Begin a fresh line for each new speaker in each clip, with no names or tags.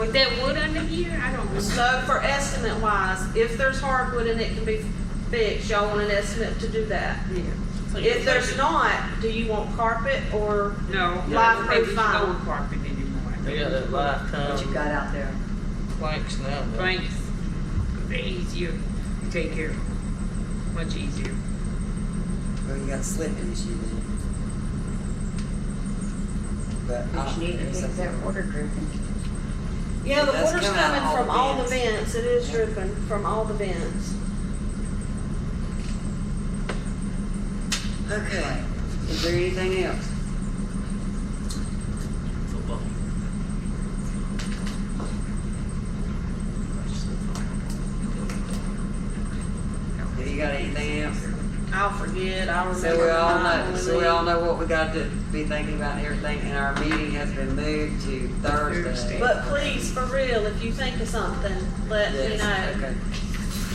With that wood under here, I don't know.
So for estimate wise, if there's hardwood and it can be fixed, y'all want an estimate to do that? If there's not, do you want carpet or,
No.
Live
they just
profile.
go with carpet anymore.
They got that
What you
lifetime
got out there?
planks now. though.
Thanks. They're easier to take care of. Much easier.
Well, you got a slipping issue then. But. ah,
But you need to fix that water dripping.
yeah, the
That's
water's
coming
coming
out all
from
the
all the vents,
vents.
it is dripping from all the vents.
Okay, is there anything else?
Football.
Have you got anything else?
I'll forget, I'll remember.
So we all
mine
know,
when
so
we-
we all know what we got to be thinking about and everything, and our meeting has been moved to Thursday.
But please, for real, if you think of something, let me
Yes,
know.
okay.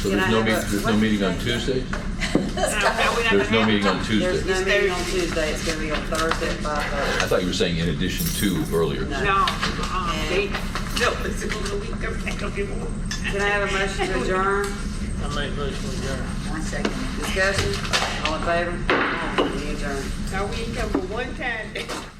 So
Can I
there's no
have a-
meeting, there's no
what-
meeting on Tuesday?
Now, we not
There's
gonna
no
have
meeting on
time.
There's
Tuesday?
no meeting on Tuesday, it's gonna be on Thursday at five
I
thirty.
thought you were saying in addition to earlier.
No.
No, uh-uh, they, no, it's a little week, I'm not gonna give more.
Can I have a motion to adjourn?
I make motion to adjourn.
One second.
Discussion, all in favor? Any adjourn?
Now, we ain't come but one time.